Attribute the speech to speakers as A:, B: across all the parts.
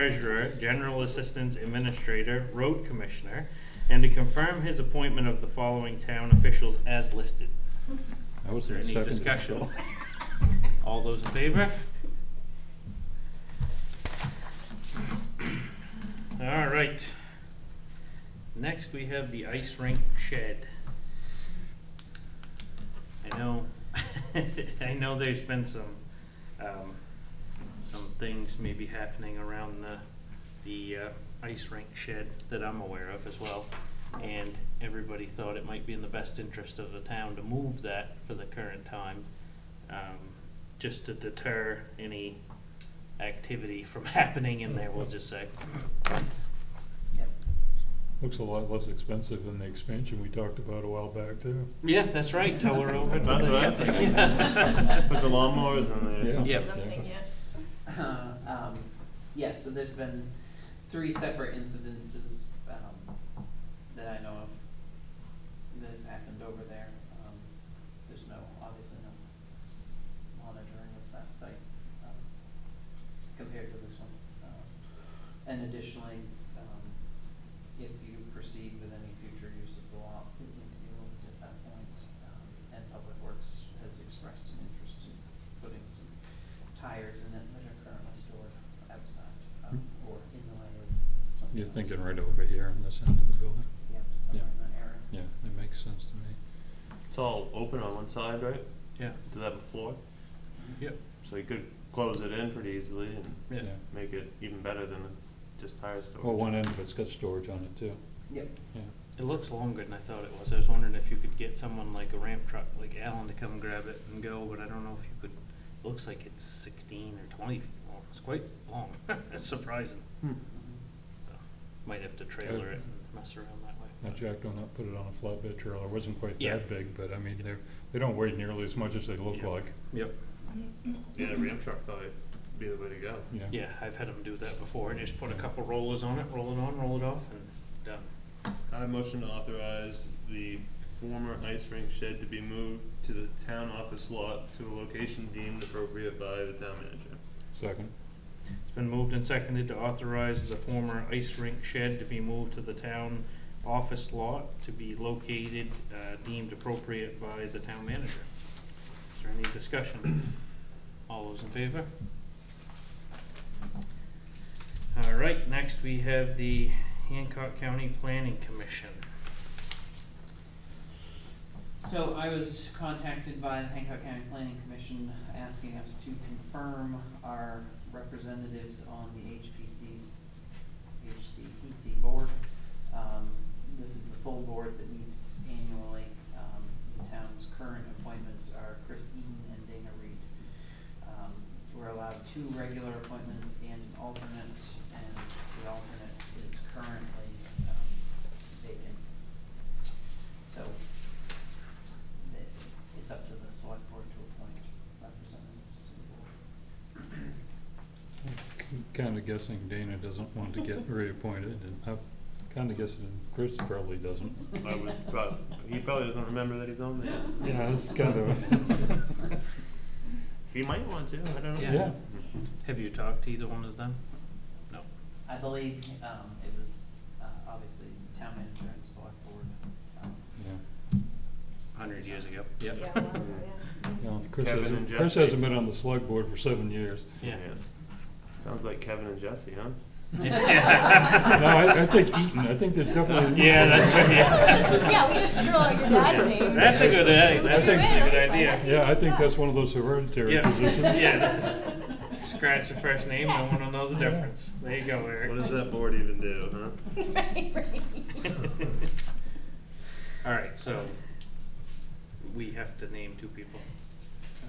A: treasurer, general assistance administrator, road commissioner, and to confirm his appointment of the following town officials as listed.
B: I was
A: Is there any
B: second.
A: discussion? All those in favor? All right. Next, we have the ice rink shed. I know, I know there's been some, um, some things maybe happening around the, the, uh, ice rink shed that I'm aware of as well. And everybody thought it might be in the best interest of the town to move that for the current time, um, just to deter any activity from happening in there, we'll just say.
B: Looks a lot less expensive than the expansion we talked about a while back too.
A: Yeah, that's right, tow her over to
C: That's
A: the-
C: what I was thinking.
A: Yeah.
C: Put the lawnmowers in there.
A: Yeah.
D: Something, yeah.
E: Um, yeah, so there's been three separate incidences, um, that I know of that have happened over there. Um, there's no, obviously no monitoring of that site, um, compared to this one. Um, And additionally, um, if you proceed with any future use of the lot, it need to be looked at that point. Um, And Public Works has expressed an interest in putting some tires in it that are currently stored outside, um, or in the way of something.
B: Hmm. You're
E: else.
B: thinking right over here on this end of the building?
E: Yeah, somewhere in that area.
B: Yeah, it makes sense to me.
C: It's all open on one side, right?
A: Yeah.
C: To that floor?
A: Yep.
C: So you could close it in pretty easily and
A: Yeah.
C: make it even better than just tire storage.
B: Well, one end of it's got storage on it too.
E: Yep.
B: Yeah.
A: It looks longer than I thought it was. I was wondering if you could get someone like a ramp truck, like Alan, to come grab it and go, but I don't know if you could. It looks like it's sixteen or twenty feet long. It's quite long. It's surprising.
E: Mhm.
A: Might have to trailer it and mess around that way.
B: I jacked one up, put it on a flatbed trailer. It wasn't quite
A: Yeah.
B: that big, but I mean, they're, they don't weigh nearly as much as they look
A: Yeah.
B: like.
A: Yep.
C: Yeah, the ramp truck probably be the way to go.
B: Yeah.
A: Yeah, I've had them do that before and just put a couple rollers on it, roll it on, roll it off and done.
C: I motion to authorize the former ice rink shed to be moved to the town office lot to a location deemed appropriate by the town manager.
B: Second.
A: It's been moved and seconded to authorize the former ice rink shed to be moved to the town office lot to be located, uh, deemed appropriate by the town manager. Is there any discussion? All those in favor? All right, next we have the Hancock County Planning Commission.
E: So I was contacted by the Hancock County Planning Commission asking us to confirm our representatives on the HPC, HCPC board. Um, this is the full board that meets annually. Um, the town's current appointments are Chris Eaton and Dana Reed. Um, we're allowed two regular appointments and an alternate, and the alternate is currently, um, vacant. So that it's up to the select board to appoint representatives to the board.
B: Kinda guessing Dana doesn't want to get reappointed and I'm kinda guessing Chris probably doesn't.
C: I would prob- he probably doesn't remember that he's on there.
B: Yeah, it's kind of.
C: He might want to, I don't know.
A: Yeah. Have you talked to either one of them?
E: I believe, um, it was, uh, obviously town manager and select board, um,
B: Yeah.
A: Hundred years ago.
D: Yeah, well, yeah.
B: Yeah, Chris
C: Kevin
B: hasn't,
C: and
B: Chris
C: Jesse.
B: hasn't been on the select board for seven years.
A: Yeah.
C: Sounds like Kevin and Jesse, huh?
B: No, I, I think Eaton, I think there's definitely.
A: Yeah, that's what-
D: Yeah, we just scroll out your dad's name.
A: That's a good, uh,
D: Scoop
A: that's actually
D: you
A: a
D: in,
A: good
D: find
A: idea.
D: out who
B: Yeah, I
D: you
B: think
D: suck.
B: that's one of those hereditary
A: Yeah.
B: positions.
A: Yeah. Scratch the first name, no one will know the difference. There you go, Eric.
C: What does that board even do, huh?
D: Right, right.
A: All right, so we have to name two people.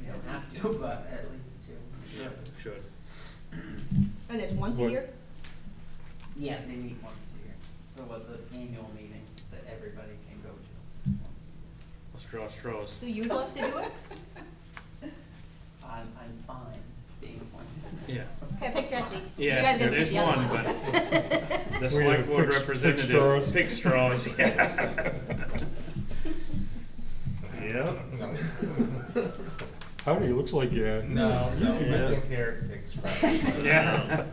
E: we don't have to, but at least two.
C: Yeah.
A: Should.
D: And it's once a
B: What-
D: year?
E: Yeah, they meet once a year, so was the annual meeting that everybody can go to once a
A: Let's draw straws.
D: So you'd love to do it?
E: year. I'm, I'm fine being appointed.
A: Yeah.
D: Okay, pick Jesse. You
A: Yeah,
D: guys gotta
A: there's
D: pick the other
A: one, but the select
B: We
A: board
B: pick- pick
A: representative
B: straws.
A: picks straws, yeah.
C: Yep.
F: No.
B: Howdy, looks like you.
F: No, no, I
C: Yeah.
F: think Eric picks.
A: Yeah.